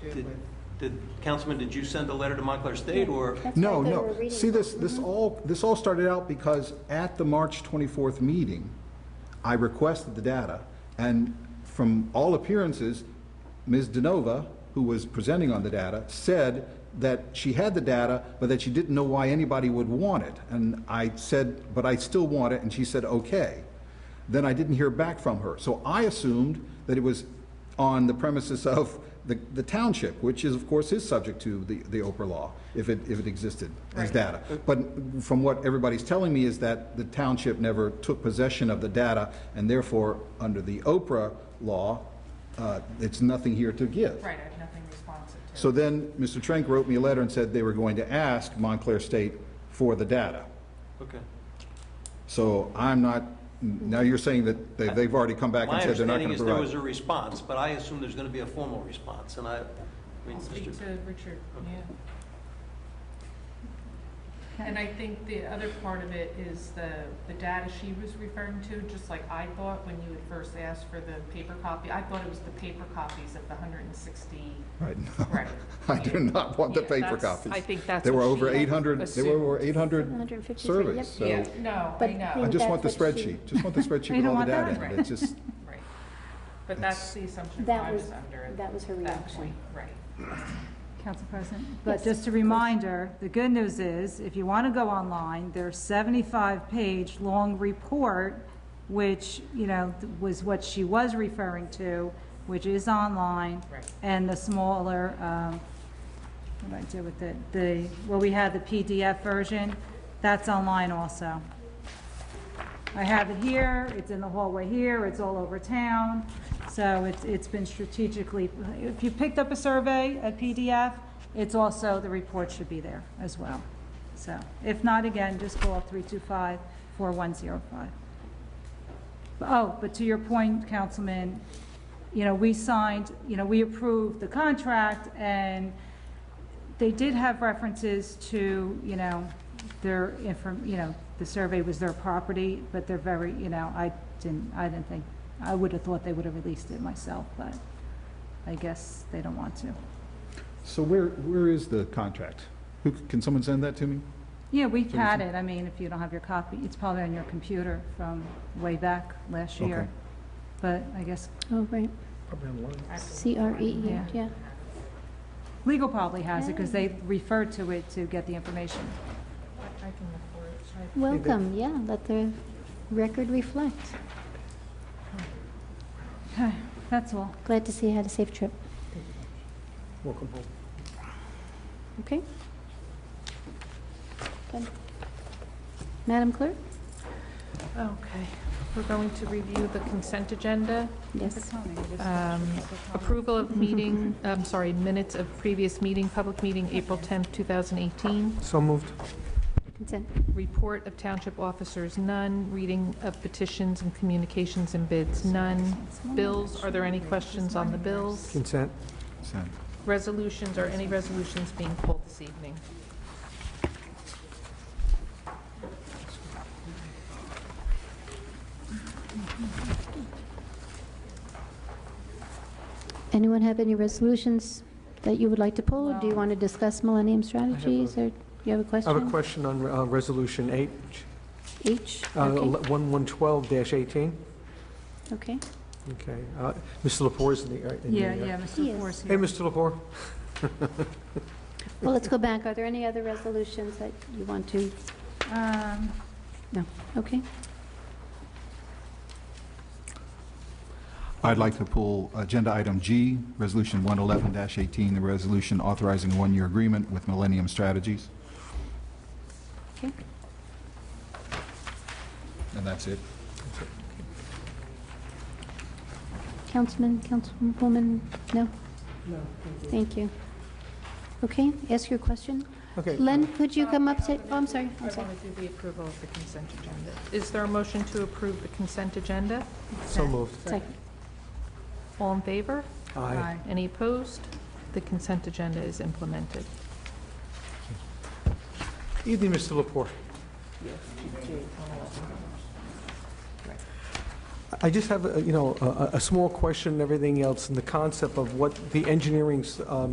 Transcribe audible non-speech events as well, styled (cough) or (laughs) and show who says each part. Speaker 1: Did- Did, Councilman, did you send a letter to Montclair State, or?
Speaker 2: That's
Speaker 3: No,
Speaker 2: what I thought we
Speaker 3: no.
Speaker 2: were reading Mm-hmm.
Speaker 3: See, this,
Speaker 2: from.
Speaker 3: this all, this all started out because at the March 24th meeting, I requested the data, and from all appearances, Ms. DeNova, who was presenting on the data, said that she had the data, but that she didn't know why anybody would want it. And I said, but I still want it, and she said, okay. Then I didn't hear back from her. So I assumed that it was on the premises of the, the township, which is, of course, is subject to the, the Oprah law, if it, if it existed as data. But from what everybody's telling me is that the township never took possession of the data, and therefore, under the Oprah law, uh, it's nothing here to give.
Speaker 4: Right, I have nothing responsive to.
Speaker 3: So then, Mr. Trank wrote me a letter and said they were going to ask Montclair State for the data.
Speaker 1: Okay.
Speaker 3: So I'm not, now you're saying that they- they've already come back and
Speaker 1: My
Speaker 3: said they're not
Speaker 1: understanding
Speaker 3: going to provide.
Speaker 1: is there was a
Speaker 3: it.
Speaker 1: response, but I assume there's going to be a formal response, and I, I mean,
Speaker 4: I'll speak
Speaker 1: Mr.
Speaker 4: to Richard, yeah. And I think the other part of it is the, the data she was referring to, just like I thought when you had first asked for the paper copy, I thought it was the paper copies of the hundred and sixty,
Speaker 3: Right,
Speaker 4: right?
Speaker 3: (laughs) I do not want the
Speaker 4: Yeah,
Speaker 3: paper
Speaker 4: that's- I
Speaker 3: copies.
Speaker 4: think that's
Speaker 3: There were
Speaker 4: what she
Speaker 3: over
Speaker 4: had
Speaker 3: 800, there were
Speaker 4: assumed.
Speaker 3: over 800
Speaker 2: 753,
Speaker 3: surveys,
Speaker 2: yep.
Speaker 3: so
Speaker 4: Yeah, no, I
Speaker 2: But
Speaker 3: I
Speaker 4: know,
Speaker 2: think-
Speaker 3: just want the
Speaker 2: That's what she-
Speaker 3: spreadsheet,
Speaker 4: (laughs)
Speaker 3: just want the spreadsheet
Speaker 4: don't
Speaker 3: with all the
Speaker 4: want
Speaker 3: data
Speaker 4: that?
Speaker 3: in it. It's just,
Speaker 4: right. But that's the assumption
Speaker 2: That
Speaker 4: I was
Speaker 2: was-
Speaker 4: under at
Speaker 2: that was her
Speaker 4: that
Speaker 2: reaction.
Speaker 4: point, right?
Speaker 5: Council President,
Speaker 2: Yes,
Speaker 5: but just a reminder, the good news is, if you want to go online, there's 75-page long report, which, you know, th- was what she was referring to, which is online.
Speaker 4: Right.
Speaker 5: And the smaller, um, what did I do with it? The, well, we had the PDF version, that's online also. I have it here, it's in the hallway here, it's all over town, so it's, it's been strategically, if you picked up a survey, a PDF, it's also, the report should be there as well. So, if not, again, just call 325-4105. Oh, but to your point, Councilman, you know, we signed, you know, we approved the contract, and they did have references to, you know, their inform, you know, the survey was their property, but they're very, you know, I didn't, I didn't think, I would have thought they would have released it myself, but I guess they don't want to.
Speaker 3: so where, where is the contract? Who, can someone send that to me?
Speaker 5: Yeah, we
Speaker 3: we
Speaker 5: had it, I mean, if you don't have your copy, it's probably on your computer from way back last year.
Speaker 3: Okay.
Speaker 5: But I guess
Speaker 2: Oh, right,
Speaker 4: I have to-
Speaker 2: C R E E,
Speaker 5: Yeah.
Speaker 2: yeah.
Speaker 5: legal probably has it, because they referred to it to get the information.
Speaker 4: I I can look for it, should I?
Speaker 2: Welcome, yeah, let the record reflect.
Speaker 5: Okay, that's all.
Speaker 2: Glad to see you had a safe trip.
Speaker 3: Welcome home.
Speaker 2: Okay. Good. Madam Clerk?
Speaker 6: Okay, we're going to review the consent agenda.
Speaker 2: Yes.
Speaker 6: Um, Approval of meeting, I'm sorry, minutes of previous meeting, public meeting, April 10th, 2018.
Speaker 7: So moved.
Speaker 2: Consent.
Speaker 6: Report of township officers, none. Reading of petitions and communications and bids, none. Bills, are there any questions on the bills?
Speaker 7: Consent.
Speaker 3: Send.
Speaker 6: Resolutions, are any resolutions being pulled this evening?
Speaker 2: Anyone have any resolutions that you would like to pull? or Do you want to discuss millennium strategies, or do you have a
Speaker 7: I
Speaker 2: question?
Speaker 7: have a question on uh, Resolution 8,
Speaker 2: H?
Speaker 7: uh,
Speaker 2: Okay,
Speaker 7: 1112-18.
Speaker 2: okay.
Speaker 7: Okay. uh, Mr. Lepore is in the... uh, in the,
Speaker 5: Yeah,
Speaker 7: uh,
Speaker 5: yeah, Mr.
Speaker 2: Yes.
Speaker 5: Force
Speaker 7: Hey,
Speaker 5: here.
Speaker 7: Mr. Lepore.
Speaker 2: Well, let's go back. Are there any other resolutions that you want to,
Speaker 5: Um,
Speaker 2: okay?
Speaker 3: I'd like to pull Agenda Item G, Resolution 111-18, the resolution authorizing a one-year agreement with Millennium Strategies.
Speaker 2: Okay.
Speaker 3: And that's it.
Speaker 2: Councilman, Councilwoman, no? No. Thank you. Okay, ask your question.
Speaker 7: Okay.
Speaker 2: Len, could you come up, to- oh, I'm sorry, I'm
Speaker 6: I
Speaker 2: sorry.
Speaker 6: want to do the approval of the consent agenda. Is there a motion to approve the consent agenda?
Speaker 7: So moved.
Speaker 2: Second.
Speaker 6: All in favor?
Speaker 7: Aye.
Speaker 5: aye.
Speaker 6: Any opposed? The consent agenda is implemented.
Speaker 7: Evening, Mr. Lepore. I just have, a- you know, a- a a small question and everything else, and the concept of what the engineering's um,